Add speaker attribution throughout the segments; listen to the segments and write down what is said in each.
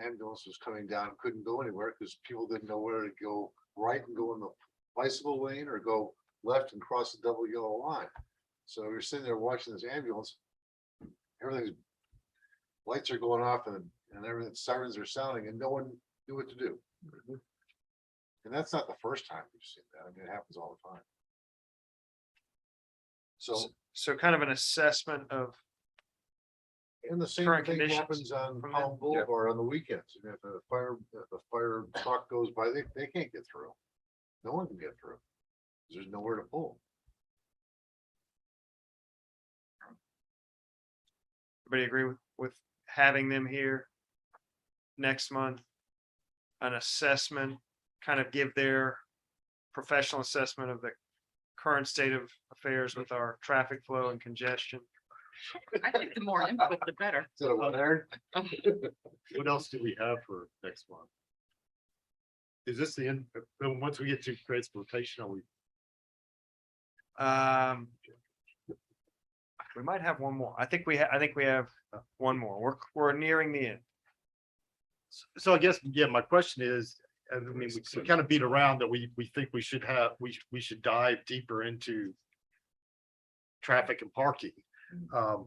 Speaker 1: ambulance was coming down, couldn't go anywhere because people didn't know where to go right and go in the bicycle lane or go left and cross the double yellow line. So you're sitting there watching this ambulance. Everything's lights are going off and, and everything sirens are sounding and no one knew what to do. And that's not the first time we've seen that. I mean, it happens all the time. So,
Speaker 2: So kind of an assessment of,
Speaker 1: and the same
Speaker 2: current
Speaker 1: thing
Speaker 2: conditions
Speaker 1: happens on
Speaker 2: from
Speaker 1: Palm
Speaker 2: that- yeah.
Speaker 1: Boulevard on the weekends. You know, If a fire, if a fire truck goes by, they, they can't get through. No one can get through. There's nowhere to pull.
Speaker 2: everybody agree with, with having them here next month? An assessment, kind of give their professional assessment of the current state of affairs with our traffic flow and congestion.
Speaker 3: I think the more input, the better.
Speaker 1: Is that a one, Aaron?
Speaker 4: What else do we have for next month? Is this the end, then once we get to transportation, are we,
Speaker 2: Um. We might have one more. I think we, ha- I think we have one more. We're, we're nearing the end.
Speaker 4: so- so I guess, yeah, my question is, I mean, we- we kind of beat around that we, we think we should have, we, we should dive deeper into traffic and parking. Um,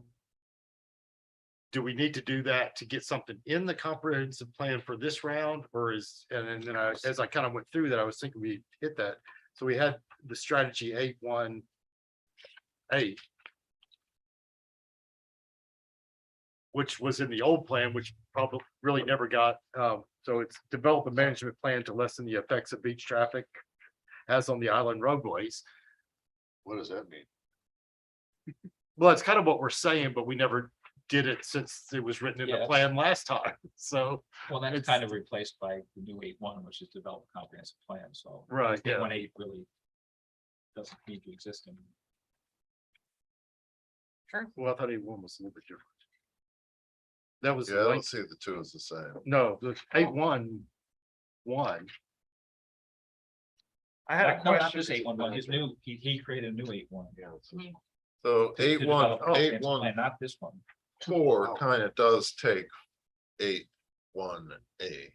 Speaker 4: Do we need to do that to get something in the comprehensive plan for this round or is, and then- then I, as I kind of went through that, I was thinking we hit that. So we had the strategy eight one eight. Which was in the old plan, which probably really never got, um, so it's develop a management plan to lessen the effects of beach traffic as on the island roadways.
Speaker 1: What does that mean?
Speaker 4: Well, it's kind of what we're saying, but we never did it since it was written in the
Speaker 5: Yeah.
Speaker 4: plan last time, so.
Speaker 5: Well, that's
Speaker 4: It's-
Speaker 5: kind of replaced by the new eight one, which is develop a comprehensive plan, so.
Speaker 4: Right,
Speaker 5: Eight one eight really doesn't need to exist in.
Speaker 4: Well, I thought eight one was a little bit different. That was, Oh.
Speaker 1: Yeah, I
Speaker 4: like-
Speaker 1: don't see the two as the same.
Speaker 4: no, the eight one, one,
Speaker 2: I had a
Speaker 5: No, not
Speaker 2: question.
Speaker 5: This eight one one, his new, he, he created a new eight one.
Speaker 6: So eight one, oh, eight one,
Speaker 5: Not this one.
Speaker 1: Oh.
Speaker 6: four kind of does take eight, one, eight.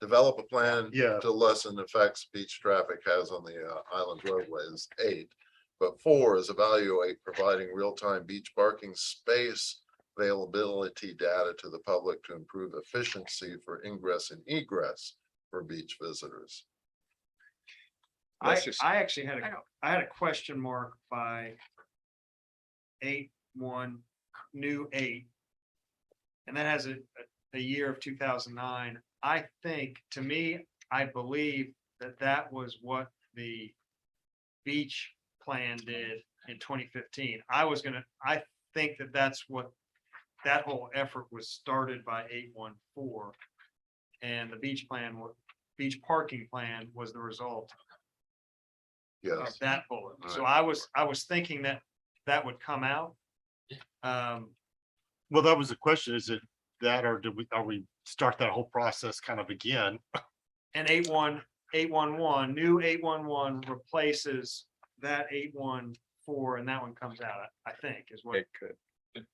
Speaker 6: Develop a plan
Speaker 4: yeah,
Speaker 6: to lessen effects beach traffic has on the uh, island roadways, eight. But four is evaluate providing real-time beach parking space availability data to the public to improve efficiency for ingress and egress for beach visitors.
Speaker 2: I,
Speaker 6: That's just-
Speaker 2: I actually had
Speaker 3: I
Speaker 2: a,
Speaker 3: don't-
Speaker 2: I had a question mark by eight, one, new eight. And that has a, a- a year of two thousand nine. I think, to me, I believe that that was what the beach plan did in twenty fifteen. I was gonna, I think that that's what, that whole effort was started by eight, one, four. And the beach plan, wa- beach parking plan was the result
Speaker 6: Yes.
Speaker 2: of that bullet. So
Speaker 1: Alright.
Speaker 2: I was, I was thinking that that would come out. Um,
Speaker 4: well, that was the question, is it that or did we, are we start that whole process kind of again?
Speaker 2: and eight one, eight one one, new eight one one replaces that eight one four and that one comes out, I I think is what.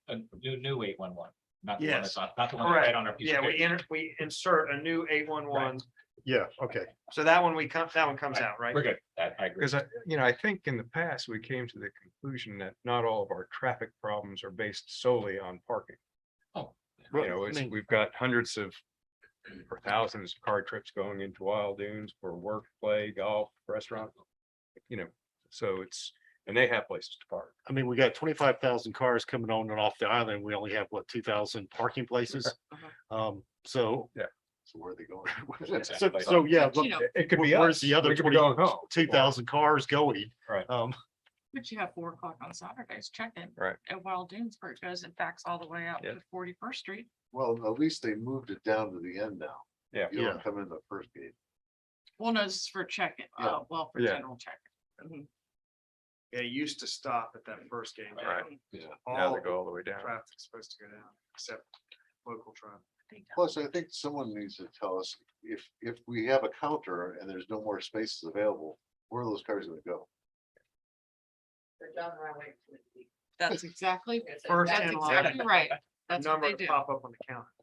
Speaker 5: A new, new eight one one, not the one
Speaker 2: Yes.
Speaker 5: that's on, not the one that's
Speaker 2: Correct.
Speaker 5: right on our piece
Speaker 2: Yeah,
Speaker 5: of
Speaker 2: we
Speaker 5: paper.
Speaker 2: enter, we insert a new eight one one.
Speaker 4: Yeah, okay.
Speaker 2: So that one we come, that one comes out, right?
Speaker 5: We're good, I, I agree.
Speaker 7: Because I, you know, I think in the past, we came to the conclusion that not all of our traffic problems are based solely on parking. You know, it's, we've got hundreds of or thousands of car trips going into Wild Dunes for work, play, golf, restaurant. You know, so it's, and they have places to park.
Speaker 4: I mean, we got twenty-five thousand cars coming on and off the island. We only have, what, two thousand parking places? Um, so,
Speaker 1: So where are they going?
Speaker 4: so,
Speaker 5: Exactly.
Speaker 4: so, yeah,
Speaker 3: But
Speaker 4: look,
Speaker 3: you know,
Speaker 7: It could be
Speaker 4: where- where's
Speaker 7: us.
Speaker 4: the other
Speaker 7: We could be going home.
Speaker 4: two thousand cars going?
Speaker 7: Right.
Speaker 4: Um,
Speaker 3: But you have four o'clock on Saturdays, check in.
Speaker 7: Right.
Speaker 3: At Wild Dunes where it goes and backs all the way out
Speaker 7: Yeah.
Speaker 3: to Forty First Street.
Speaker 1: Well, at least they moved it down to the end now.
Speaker 7: Yeah.
Speaker 1: You don't
Speaker 4: Yeah.
Speaker 1: come in the first gate.
Speaker 3: Well, no, this is for check in,
Speaker 1: Yeah.
Speaker 3: oh, well, for
Speaker 7: Yeah.
Speaker 3: general check. in
Speaker 2: Yeah, it used to stop at that first game.
Speaker 7: Right. Now
Speaker 2: All
Speaker 7: they go all the way down.
Speaker 2: traffic's supposed to go down, except local traffic.
Speaker 1: Plus, I think someone needs to tell us if, if we have a counter and there's no more spaces available, where are those cars gonna go?
Speaker 3: That's exactly,
Speaker 2: First
Speaker 3: that's
Speaker 2: in line,
Speaker 3: exactly right. That's what
Speaker 2: number
Speaker 3: they
Speaker 2: to
Speaker 3: do.
Speaker 2: pop up on the counter.